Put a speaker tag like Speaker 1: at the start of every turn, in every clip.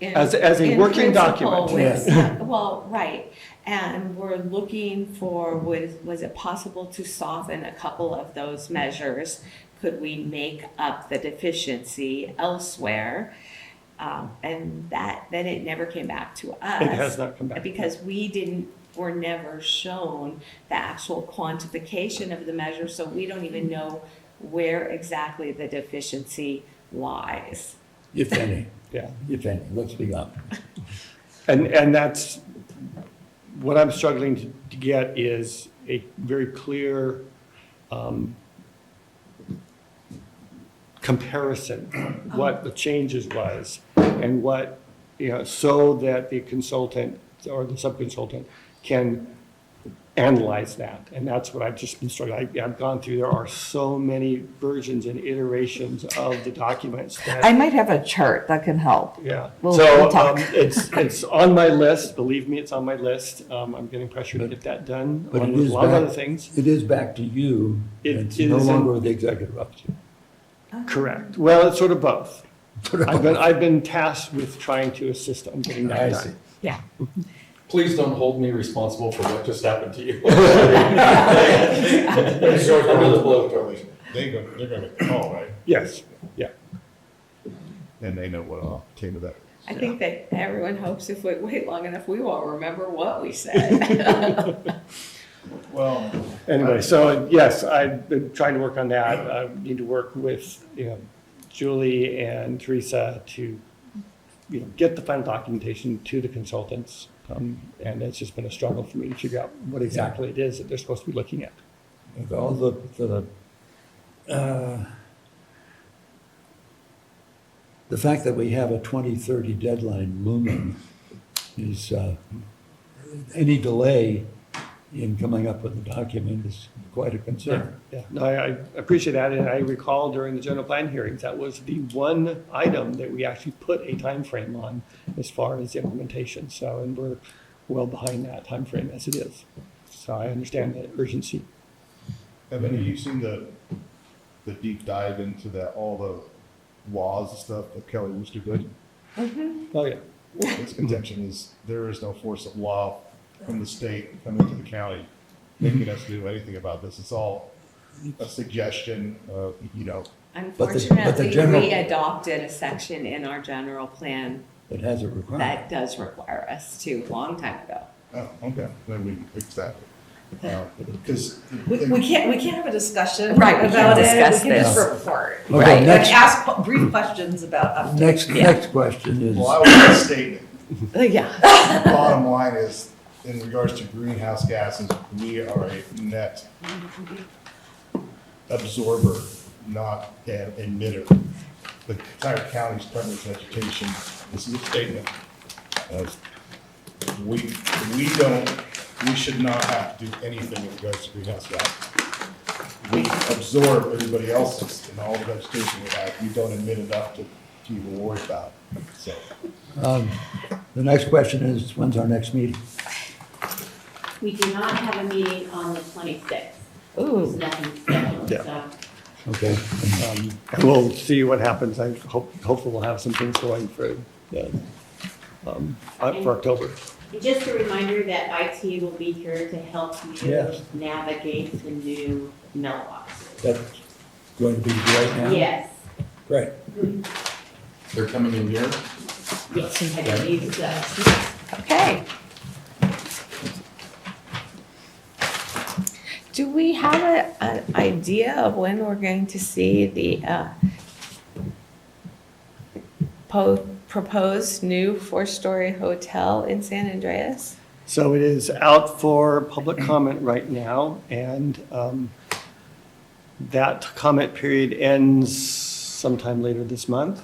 Speaker 1: in-
Speaker 2: As- as a
Speaker 1: in principle
Speaker 2: working document.
Speaker 1: with-
Speaker 3: Yes.
Speaker 1: yeah, Well, right, and we're looking for, was, was it possible to soften a couple of those measures? Could we make up the deficiency elsewhere? Um, and that, then it never came back to us.
Speaker 2: It has not come back.
Speaker 1: Because we didn't, were never shown the actual quantification of the measure, so we don't even know where exactly the deficiency lies.
Speaker 3: if any,
Speaker 2: Yeah.
Speaker 3: if any, let's be honest.
Speaker 2: And, and that's, what I'm struggling to- to get is a very clear um, comparison, what the changes was, and what, you know, so that the consultant or the sub-consultant can analyze that. And that's what I've just been struggling, I- I've gone through, there are so many versions and iterations of the documents that.
Speaker 4: I might have a chart that can help.
Speaker 2: Yeah,
Speaker 4: We'll-
Speaker 2: so
Speaker 4: we'll talk.
Speaker 2: um, it's, it's on my list, believe me, it's on my list. Um, I'm getting pressure to get that done,
Speaker 3: But
Speaker 2: along
Speaker 3: it
Speaker 2: with
Speaker 3: is
Speaker 2: a lot of
Speaker 3: back-
Speaker 2: other things.
Speaker 3: It is back to you.
Speaker 2: It
Speaker 3: It's no
Speaker 2: is in-
Speaker 3: longer the executive officer.
Speaker 2: Correct. Well, it's sort of both. I've been, I've been tasked with trying to assist on getting
Speaker 3: I
Speaker 2: that
Speaker 3: see.
Speaker 2: done.
Speaker 4: Yeah.
Speaker 5: Please don't hold me responsible for what just happened to you. Under the blow, Charlie.
Speaker 6: They go, they're gonna call, right?
Speaker 2: Yes, yeah.
Speaker 6: And they know what all came to that.
Speaker 1: I think that everyone hopes if we wait long enough, we won't remember what we said.
Speaker 6: Well,
Speaker 2: Anyway, so yes, I've been trying to work on that. I need to work with, you know, Julie and Teresa to, you know, get the final documentation to the consultants.
Speaker 3: Oh.
Speaker 2: Um, And it's just been a struggle for me to figure out what exactly it is that they're supposed to be looking at.
Speaker 3: If all the, for the, uh, the fact that we have a 2030 deadline looming is, uh, any delay in coming up with a document is quite a concern.
Speaker 2: Yeah, no, I I appreciate that, and I recall during the general plan hearings, that was the one item that we actually put a time frame on as far as implementation, so, and we're well behind that time frame as it is. So I understand the urgency.
Speaker 6: have any of you seen the, the deep dive into that, all the laws and stuff of Kelly Wooster Good?
Speaker 2: Oh, yeah,
Speaker 6: His contention is there is no force of law from the state coming to the county making us do anything about this. It's all a suggestion of, you know,
Speaker 3: but the
Speaker 1: Unfortunately,
Speaker 3: general-
Speaker 1: we adopted a section in our general plan
Speaker 3: It has a requirement.
Speaker 1: that does require us to, a long time ago.
Speaker 6: oh, okay, then we fix that. Uh, Because.
Speaker 7: We, we can't, we can't have a discussion.
Speaker 4: Right, we can't
Speaker 7: about it.
Speaker 4: discuss
Speaker 7: We can just
Speaker 4: this.
Speaker 7: report.
Speaker 3: Okay,
Speaker 7: Right,
Speaker 3: next-
Speaker 7: and ask qu- brief questions about updates.
Speaker 3: Next, next question is,
Speaker 6: Well, I was just stating,
Speaker 1: Yeah.
Speaker 6: bottom line is, in regards to greenhouse gases, we are a net absorber, not an emitter. The entire county's Department of Education, this is a statement of, we, we don't, we should not have to do anything in regards to greenhouse gases. We absorb everybody else's and all the vegetation we have, we don't emit enough to, to even worry about, so.
Speaker 3: the next question is, when's our next meeting?
Speaker 8: We do not have a meeting on the twenty-sixth. There's
Speaker 4: Ooh,
Speaker 8: nothing scheduled,
Speaker 2: Yeah.
Speaker 8: so.
Speaker 3: Okay,
Speaker 2: um, and we'll see what happens, I hope, hopefully we'll have some things going for, the, um, uh, for October.
Speaker 8: And just a reminder that IT will be here to help you
Speaker 3: Yes.
Speaker 8: navigate the new mailbox.
Speaker 3: that's going to be right now?
Speaker 8: Yes,
Speaker 3: Great.
Speaker 5: They're coming in here.
Speaker 8: yes, I believe so.
Speaker 4: okay.
Speaker 1: Do we have a, an idea of when we're going to see the, uh, po- proposed new four-story hotel in San Andreas?
Speaker 2: So it is out for public comment right now, and um, that comment period ends sometime later this month.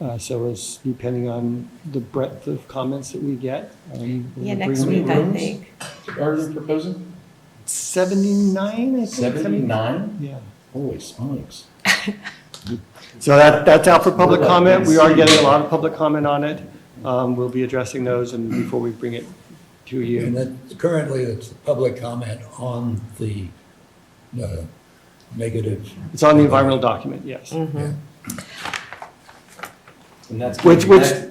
Speaker 2: Uh, So it's depending on the breadth of comments that we get. um,
Speaker 1: Yeah,
Speaker 2: we'll
Speaker 1: next
Speaker 2: bring
Speaker 1: week, I
Speaker 2: rooms.
Speaker 1: think.
Speaker 5: Are you proposing?
Speaker 2: 79, I think.
Speaker 5: 79?
Speaker 2: Yeah.
Speaker 5: Holy smokes.
Speaker 2: So that, that's out for public
Speaker 5: We're like
Speaker 2: comment. We
Speaker 5: this.
Speaker 2: are getting a lot of public comment on it. Um, We'll be addressing those and before we bring it to you.
Speaker 3: And that's currently, it's the public comment on the uh, negative.
Speaker 2: It's
Speaker 1: Mm-hmm.
Speaker 2: on the environmental document, yes.
Speaker 5: And that's.
Speaker 2: Which- which-
Speaker 5: that's-